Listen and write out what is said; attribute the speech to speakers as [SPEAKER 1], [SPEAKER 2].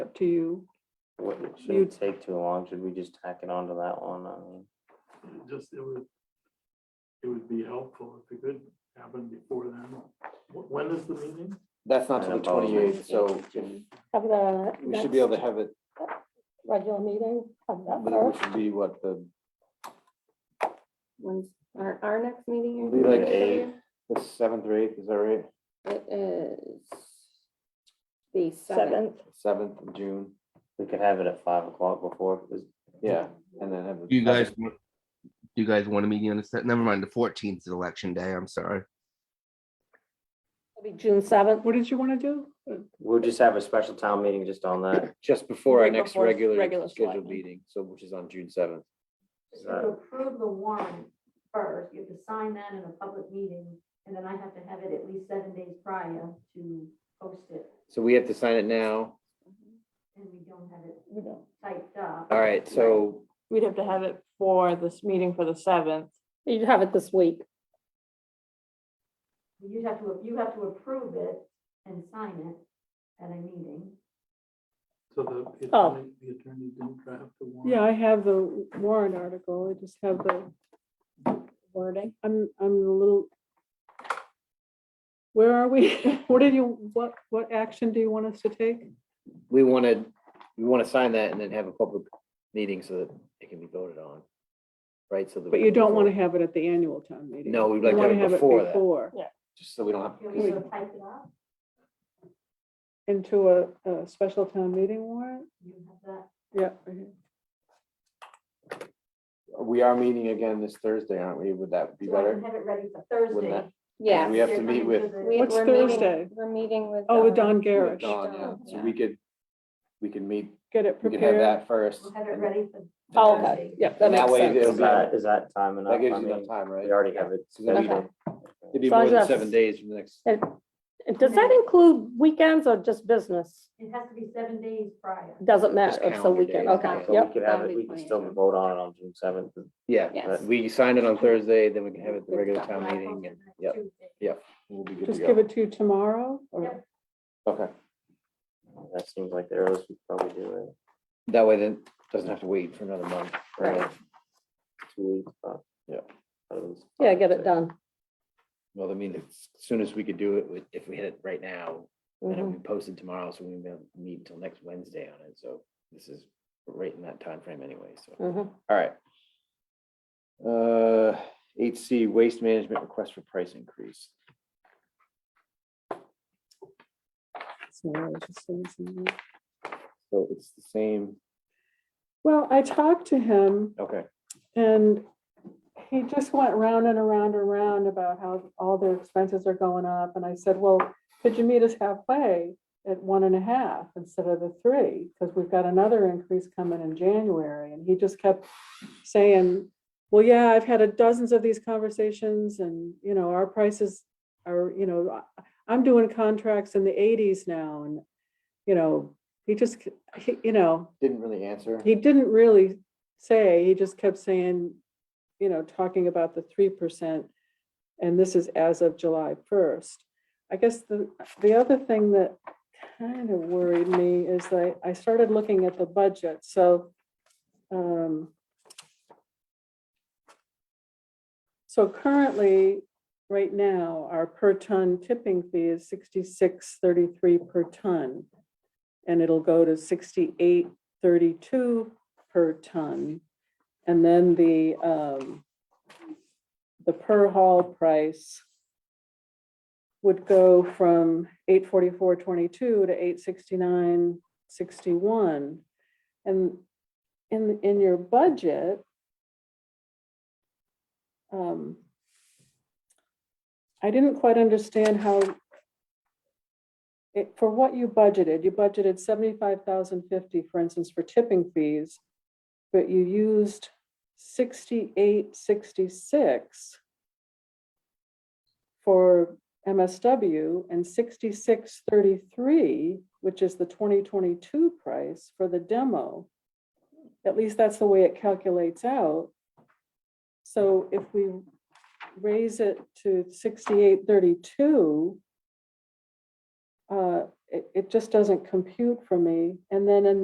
[SPEAKER 1] to you.
[SPEAKER 2] Wouldn't,
[SPEAKER 1] You'd-
[SPEAKER 2] shouldn't take too long, should we just tack it on to that one, I mean,
[SPEAKER 3] It Just, it would, it would be helpful if it could happen before then. Wh- When is the meeting?
[SPEAKER 4] That's not till the
[SPEAKER 2] About
[SPEAKER 4] twenty eighth, so if-
[SPEAKER 5] Have the.
[SPEAKER 4] we should be able to have it,
[SPEAKER 5] next Regular meeting of that
[SPEAKER 4] which
[SPEAKER 5] first.
[SPEAKER 4] would be what the,
[SPEAKER 6] When's our, our next meeting? you're
[SPEAKER 4] Be like
[SPEAKER 6] thinking,
[SPEAKER 2] eight.
[SPEAKER 6] Sonia?
[SPEAKER 4] the seventh or eighth, is that right?
[SPEAKER 6] It is the seventh.
[SPEAKER 5] Seventh,
[SPEAKER 4] Seventh of June,
[SPEAKER 2] we could have it at five o'clock before, is,
[SPEAKER 4] yeah, and then have. the-
[SPEAKER 7] Do You guys, want- do you guys want a meeting on the set? Never mind, the fourteenth is election day. I'm sorry.
[SPEAKER 5] it'll be June seventh.
[SPEAKER 1] What did you want to do? Uh,
[SPEAKER 2] we'll just have a special town meeting just on that.
[SPEAKER 4] Just before our
[SPEAKER 5] Right
[SPEAKER 4] next
[SPEAKER 5] before
[SPEAKER 4] regular
[SPEAKER 5] regular
[SPEAKER 4] scheduled
[SPEAKER 5] selectmen.
[SPEAKER 4] meeting, so which is on June seventh.
[SPEAKER 2] Is
[SPEAKER 8] You
[SPEAKER 2] that-
[SPEAKER 8] approve the warrant first, you have to sign that in a public meeting, and then I have to have it at least seven days prior to post it,
[SPEAKER 4] So we have to sign it now.
[SPEAKER 8] and we don't have it
[SPEAKER 5] We don't-
[SPEAKER 8] typed up.
[SPEAKER 4] All right, so
[SPEAKER 1] We'd have to have it for this meeting for the seventh.
[SPEAKER 5] You'd have it this week.
[SPEAKER 8] You have to, you have to approve it and sign it at a meeting.
[SPEAKER 3] So the
[SPEAKER 5] Oh.
[SPEAKER 3] attorney, the attorney didn't draft the warrant.
[SPEAKER 1] Yeah, I have the warrant article. I just have the,
[SPEAKER 5] Wording.
[SPEAKER 1] I'm, I'm a little. Where are we? What did you, what, what action do you want us to take?
[SPEAKER 4] we wanted, we want to sign that and then have a public meeting so that it can be voted on. Right, so.
[SPEAKER 1] But you don't want to have it at the annual town meeting.
[SPEAKER 4] No, we'd
[SPEAKER 1] You
[SPEAKER 4] like to
[SPEAKER 1] wanna
[SPEAKER 4] have it before that,
[SPEAKER 1] before,
[SPEAKER 4] just so we don't have.
[SPEAKER 8] You want me to type it up?
[SPEAKER 1] Into a, a special town meeting warrant?
[SPEAKER 8] You have that,
[SPEAKER 1] Yeah. okay.
[SPEAKER 4] We are meeting again this Thursday, aren't we? Would that be
[SPEAKER 8] so I can
[SPEAKER 4] better?
[SPEAKER 8] have it ready for
[SPEAKER 4] Wouldn't
[SPEAKER 8] Thursday.
[SPEAKER 4] that-
[SPEAKER 6] Yeah.
[SPEAKER 4] We have to
[SPEAKER 8] They're
[SPEAKER 4] meet
[SPEAKER 8] coming
[SPEAKER 4] with-
[SPEAKER 8] the-
[SPEAKER 6] we-
[SPEAKER 1] What's
[SPEAKER 6] we're meeting-
[SPEAKER 1] Thursday?
[SPEAKER 6] We're meeting with.
[SPEAKER 1] Oh, with
[SPEAKER 6] uh,
[SPEAKER 1] Don
[SPEAKER 4] with
[SPEAKER 1] Garrish.
[SPEAKER 4] Dawn, yeah. So we could, we could meet,
[SPEAKER 1] Get it
[SPEAKER 4] we could have
[SPEAKER 1] prepared.
[SPEAKER 4] that first.
[SPEAKER 8] We'll have it
[SPEAKER 4] and
[SPEAKER 8] ready for.
[SPEAKER 5] Oh,
[SPEAKER 8] Thursday.
[SPEAKER 5] okay. Yeah, that
[SPEAKER 4] And that
[SPEAKER 5] makes
[SPEAKER 4] way it'll
[SPEAKER 5] sense.
[SPEAKER 2] Is
[SPEAKER 4] be-
[SPEAKER 2] that, is that time enough?
[SPEAKER 4] That gives
[SPEAKER 2] I
[SPEAKER 4] you enough
[SPEAKER 2] mean,
[SPEAKER 4] time, right?
[SPEAKER 2] we already have it
[SPEAKER 4] So that'd be-
[SPEAKER 2] scheduled.
[SPEAKER 4] It'd be
[SPEAKER 5] So I
[SPEAKER 4] more than
[SPEAKER 5] just-
[SPEAKER 4] seven days from the next,
[SPEAKER 5] And Does that include weekends or just business?
[SPEAKER 8] It has to be seven days prior.
[SPEAKER 5] Doesn't matter. It's a
[SPEAKER 4] calendar
[SPEAKER 5] weekend.
[SPEAKER 4] days,
[SPEAKER 5] Okay,
[SPEAKER 4] yeah.
[SPEAKER 2] So
[SPEAKER 5] yep.
[SPEAKER 2] we could have it,
[SPEAKER 6] That'd
[SPEAKER 2] we
[SPEAKER 6] be
[SPEAKER 2] could
[SPEAKER 6] plenty of
[SPEAKER 2] still
[SPEAKER 6] time.
[SPEAKER 2] vote on it on June seventh,
[SPEAKER 4] yeah.
[SPEAKER 6] Yes.
[SPEAKER 4] We sign it on Thursday, then we can have it at the regular
[SPEAKER 8] When
[SPEAKER 4] town
[SPEAKER 8] I
[SPEAKER 4] meeting
[SPEAKER 8] post
[SPEAKER 4] and,
[SPEAKER 8] it
[SPEAKER 4] yep,
[SPEAKER 8] Tuesday.
[SPEAKER 4] we'll be good to
[SPEAKER 1] Just give
[SPEAKER 4] go.
[SPEAKER 1] it to you tomorrow
[SPEAKER 8] Yep.
[SPEAKER 1] or
[SPEAKER 4] Okay,
[SPEAKER 2] that seems like the earliest we could probably do it,
[SPEAKER 4] that way then, doesn't have to wait for another month.
[SPEAKER 6] Right.
[SPEAKER 2] two weeks, but.
[SPEAKER 4] Yeah.
[SPEAKER 2] That was-
[SPEAKER 5] Yeah, get it done.
[SPEAKER 4] Well, I mean, as soon as we could do it, we- if we hit it right now, and
[SPEAKER 5] Mm-hmm.
[SPEAKER 4] it'll be posted tomorrow, so we won't be able to meet until next Wednesday on it, so this is right in that time frame anyway, so.
[SPEAKER 5] Mhm.
[SPEAKER 4] All right. Uh, eight C, waste management request for price increase.
[SPEAKER 1] somewhere, just so it's in there.
[SPEAKER 4] So it's the same,
[SPEAKER 1] Well, I talked to him
[SPEAKER 4] okay,
[SPEAKER 1] and he just went round and around and around about how all their expenses are going up. And I said, well, could you meet us halfway at one and a half instead of the three? Because we've got another increase coming in January. And he just kept saying, well, yeah, I've had a dozens of these conversations and, you know, our prices are, you know, I- I'm doing contracts in the eighties now and, you know, he just, he- you know,
[SPEAKER 4] didn't really answer.
[SPEAKER 1] he didn't really say, he just kept saying, you know, talking about the three percent. And this is as of July first. I guess the, the other thing that kind of worried me is that I started looking at the budget, so. um, So currently, right now, our per ton tipping fee is sixty-six thirty-three per ton. And it'll go to sixty-eight 32 per ton. And then the, um, the per haul price would go from 844.22 to 869.61. And in, in your budget, um, I didn't quite understand how it, for what you budgeted, you budgeted seventy-five thousand fifty, for instance, for tipping fees, but you used sixty-eight, sixty-six for MSW and sixty-six thirty-three, which is the twenty twenty-two price for the demo. At least that's the way it calculates out. So if we raise it to sixty-eight thirty-two, uh, it, it just doesn't compute for me. And then in